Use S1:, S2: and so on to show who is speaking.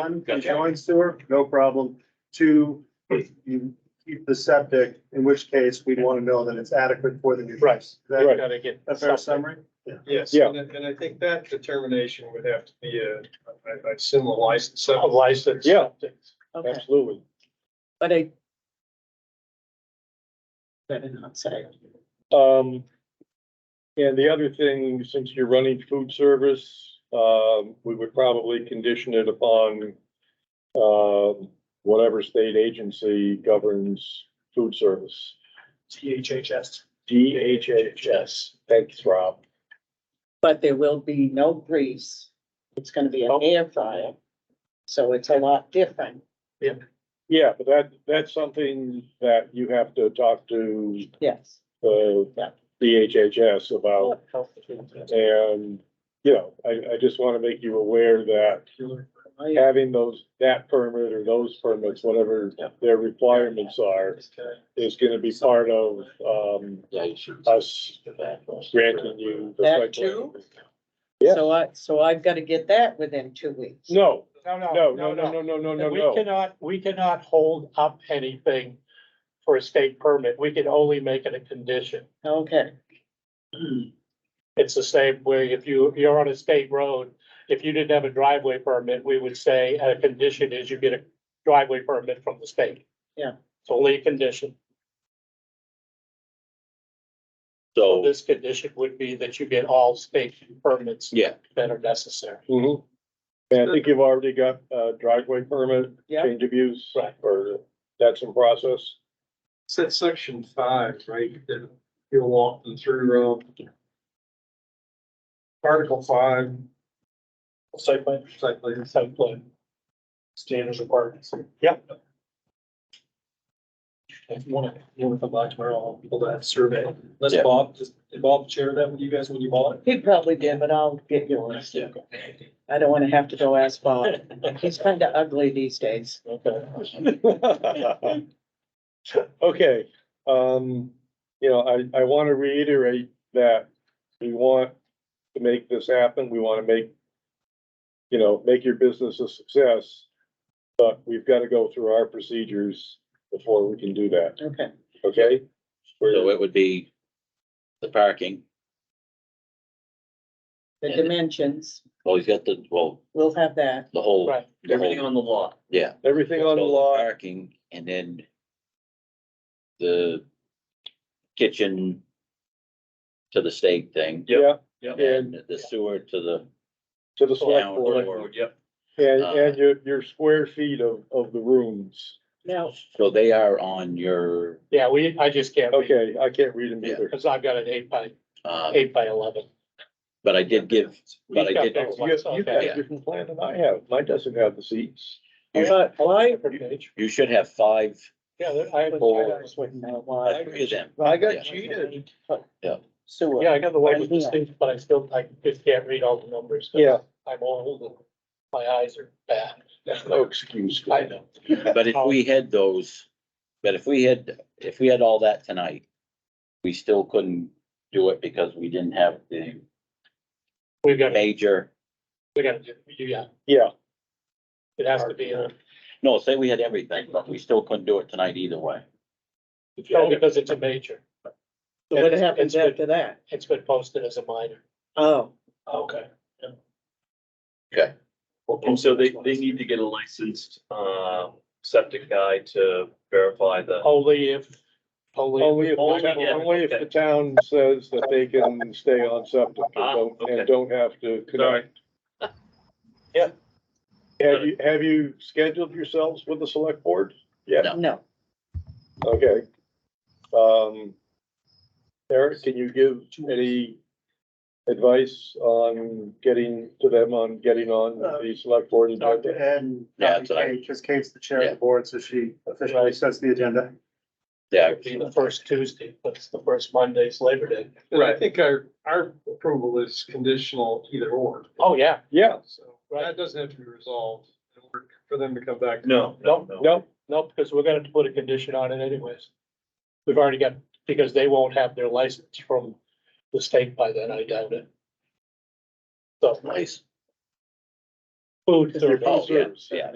S1: One, you
S2: Gotcha.
S1: join sewer, no problem. Two, you keep the septic, in which case we want to know that it's adequate for the new.
S3: Right,
S1: Is that
S3: gotta get.
S1: a fair summary?
S4: Yes,
S3: Yeah.
S4: and I, and I think that determination would have to be a, I, I assume a license.
S3: A license. Yeah,
S5: Okay,
S3: absolutely.
S5: but I. But I'm not sorry.
S3: Um, and the other thing, since you're running food service, um, we would probably condition it upon um, whatever state agency governs food service.
S4: DHHS.
S3: DHHS. Thanks, Rob.
S5: But there will be no grease. It's gonna be an
S3: Oh.
S5: air fryer. So it's a lot different.
S3: Yeah, but that, that's something that you have to talk to
S5: Yes.
S3: the
S5: Yeah.
S3: DHHS about.
S5: I
S3: And, you know, I, I just want to make you aware that having those, that permit or those permits, whatever their requirements are, is going to be part of, um,
S2: Yeah, you should.
S3: us granting you. the
S5: That
S3: site plan.
S5: too?
S3: Yes.
S5: So uh, I, so I've gotta get that within two weeks.
S3: No,
S6: No,
S3: no, no, no, no, no, no, no,
S6: We
S3: no.
S6: cannot, we cannot hold up anything for a state permit. We can only make it a condition.
S5: Okay,
S6: It's the same way if you, if you're on a state road, if you didn't have a driveway permit, we would say a condition is you get a driveway permit from the state.
S5: Yeah.
S6: It's only a condition.
S2: So,
S6: This condition would be that you get all state permits
S2: yeah,
S6: that are necessary.
S3: Mhm. And I think you've already got a driveway permit,
S5: yeah,
S3: change of use,
S6: Right.
S3: or that's in process.
S4: It's that section five, right, that you'll walk them through, Rob. Article five,
S6: Site plan.
S4: site plan.
S6: Site plan.
S4: Standard requirements.
S6: Yep.
S4: If you wanna, you wanna come by tomorrow, I'll pull that survey. Let's
S2: Yeah.
S4: Bob, just, did Bob share that with you guys when you bought it?
S5: he probably did, but I'll get yours.
S2: Yeah.
S5: I don't wanna have to go ask Bob. He's kinda ugly these days.
S6: Okay.
S3: Okay, um, you know, I, I want to reiterate that we want to make this happen. We want to make, you know, make your business a success. But we've got to go through our procedures before we can do that,
S5: Okay,
S3: okay?
S2: so
S3: We're-
S2: it would be the parking.
S5: the dimensions,
S2: Well, he's got the, well,
S5: we'll have that.
S2: the whole.
S6: Right.
S2: the whole-
S7: Everything on the lot.
S2: Yeah.
S3: Everything on the
S2: So
S3: law,
S2: Parking and then the kitchen to the state thing.
S3: yeah,
S2: And the sewer to the
S3: to the select
S2: town
S3: board,
S2: or,
S7: Yep.
S3: and,
S2: Uh,
S3: and your, your square feet of, of the rooms.
S5: Now,
S2: so they are on your,
S6: Yeah, we, I just can't.
S3: Okay, I can't read them
S2: Yeah.
S3: either.
S6: Cause I've got an eight by,
S2: uh,
S6: eight by eleven.
S2: but I did give, but I did,
S3: You got you got a different plan than I have. Mine doesn't have the seats.
S5: but why?
S2: you should have five,
S6: Yeah, there- I, I got
S2: Or-
S6: this one.
S2: uh, three of them.
S3: I
S2: Yeah.
S3: got cheated.
S5: Sewer.
S6: Yeah, I got the one
S5: Right
S6: with the
S5: here.
S6: sticks, but I still, I just can't read all the numbers. 'cause
S3: Yeah.
S6: I'm old and my eyes are bad.
S3: No excuse.
S6: I know.
S2: But if we had those, but if we had, if we had all that tonight, we still couldn't do it because we didn't have the
S6: We've got,
S2: major,
S6: we gotta, do- yeah,
S3: Yeah,
S6: it has to be, a-
S2: no, say we had everything, but we still couldn't do it tonight either way.
S6: no, because it's a major.
S5: So what
S6: It's-
S5: happens
S6: it's been-
S5: after that?
S6: It's been posted as a minor.
S5: Oh,
S6: Okay.
S7: And so they, they need to get a licensed, uh, septic guy to verify the.
S6: Only if, only,
S3: only if, only if the town says that they can stay on septic and
S7: Ah,
S3: don't,
S7: okay.
S3: and don't have to
S7: Sorry.
S3: connect. Have you, have you scheduled yourselves with the select board? Yeah,
S2: No.
S5: no,
S3: okay. Um, Eric, can you give any advice on getting to them on getting on the select board?
S1: Dr. Ed and
S2: Yeah,
S1: Dr.
S2: that's what I-
S1: Kate, because Kate's the chair of
S2: Yeah.
S1: the board, so she officially sets the agenda.
S2: Yeah,
S6: it'd be the first Tuesday, but it's the first Monday's Labor Day.
S4: And I think our, our approval is conditional either or.
S6: Oh, yeah,
S3: Yeah,
S4: So that doesn't have to be resolved in order for them to come back.
S7: No, no, no.
S3: no,
S6: nope, because we're gonna have to put a condition on it anyways. We've already got, because they won't have their license from the state by then, I doubt it. So.
S2: nice.
S8: food
S6: Your
S8: service.
S6: food
S2: Oh, yeah,
S6: service.
S2: yeah.